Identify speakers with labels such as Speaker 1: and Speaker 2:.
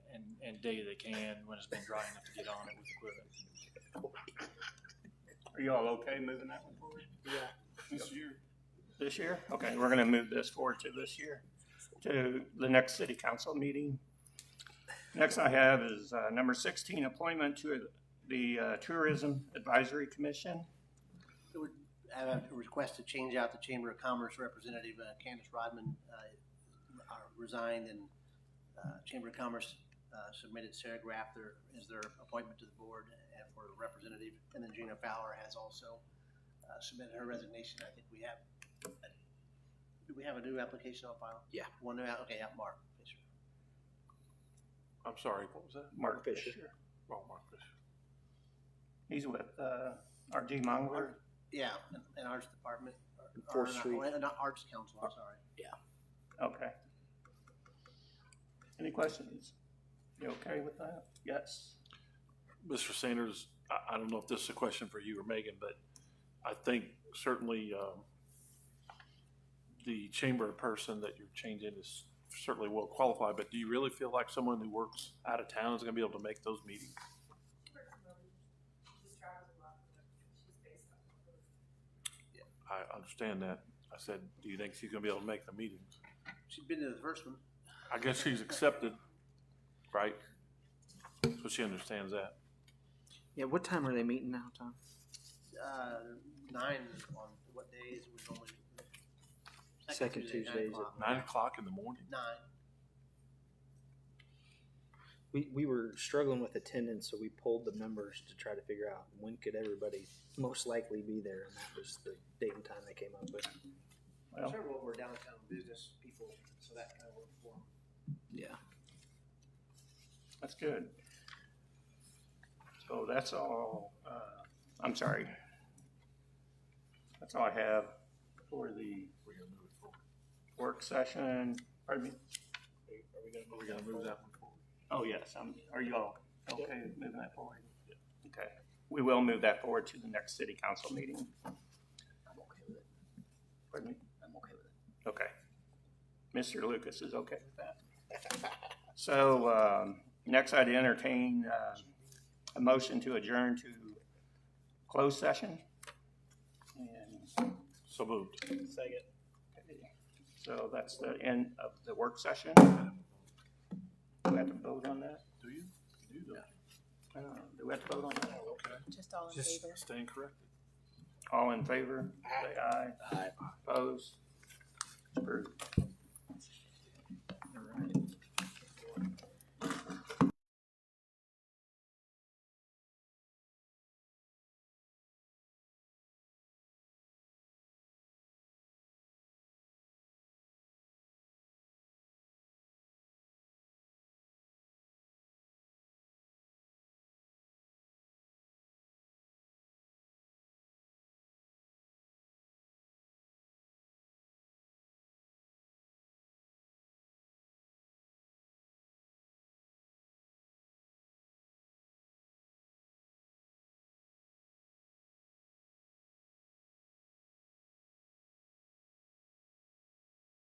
Speaker 1: each day they can when it's been dry enough to get on it with equipment.
Speaker 2: Are y'all okay moving that one forward
Speaker 1: Yeah.
Speaker 2: this year?
Speaker 3: This year? Okay, we're gonna move this forward to this year, to the next city council meeting. Next I have is, uh, number sixteen, appointment to the uh, Tourism Advisory Commission.
Speaker 4: I would uh, have a request to change out the Chamber of Commerce representative, uh, Candace Rodman, uh, resigned, and uh, Chamber of Commerce uh, submitted Sarah Graff their, as their appointment to the board and for a representative, and then Gina Fowler has also uh, submitted her resignation. I think we have, do we have a new application on file?
Speaker 5: Yeah.
Speaker 4: One new, okay, yeah, Mark Fisher.
Speaker 2: I'm sorry, what was that? Oh,
Speaker 3: Mark
Speaker 5: Fisher.
Speaker 3: Fisher.
Speaker 2: Wrong Marcus.
Speaker 3: He's with, uh, R.D. Mongler.
Speaker 4: Yeah, and- and Arts Department. or- or
Speaker 5: Fourth
Speaker 4: not-
Speaker 5: Street.
Speaker 4: oh, and Not Arts Council, I'm sorry.
Speaker 3: Okay. Any questions? You okay with that? Yes?
Speaker 2: Mr. Sanders, I, I don't know if this is a question for you or Megan, but I think certainly, um, the chamber person that you're changing is certainly well qualified, but do you really feel like someone who works out of town is gonna be able to make those meetings? I understand that. I said, do you think she's gonna be able to make the meetings?
Speaker 4: She's been to the first one.
Speaker 2: I guess she's accepted, right? So she understands that.
Speaker 5: Yeah, what time are they meeting now, Tom?
Speaker 4: uh, nine on what days we normally.
Speaker 5: Second Tuesdays at
Speaker 4: nine o'clock.
Speaker 2: Nine o'clock in the morning.
Speaker 4: Nine,
Speaker 5: We, we were struggling with attendance, so we pulled the members to try to figure out when could everybody most likely be there, and that was the date and time they came up with.
Speaker 3: Well-
Speaker 4: sure, well, we're downtown business people, so that kind of works for 'em.
Speaker 5: Yeah.
Speaker 3: That's good. So that's all, uh, I'm sorry. That's all I have for the work session, pardon me?
Speaker 2: Are we gonna move that one forward?
Speaker 3: Oh, yes, I'm, are you all okay with moving that forward? Okay, we will move that forward to the next city council meeting.
Speaker 6: I'm okay with it.
Speaker 3: Pardon me?
Speaker 6: I'm okay with it.
Speaker 3: Okay. Mr. Lucas is okay with that. So, um, next I'd entertain, uh, a motion to adjourn to closed session. And,
Speaker 2: So moved.
Speaker 3: so that's the end of the work session. Do we have to vote on that?
Speaker 2: Do you? You do.
Speaker 3: Uh, Do we have to vote on that?
Speaker 6: Just all in
Speaker 2: Just
Speaker 6: favor?
Speaker 2: staying corrected.
Speaker 3: All in favor? Say aye.
Speaker 5: Aye.
Speaker 3: Opposed? Approved.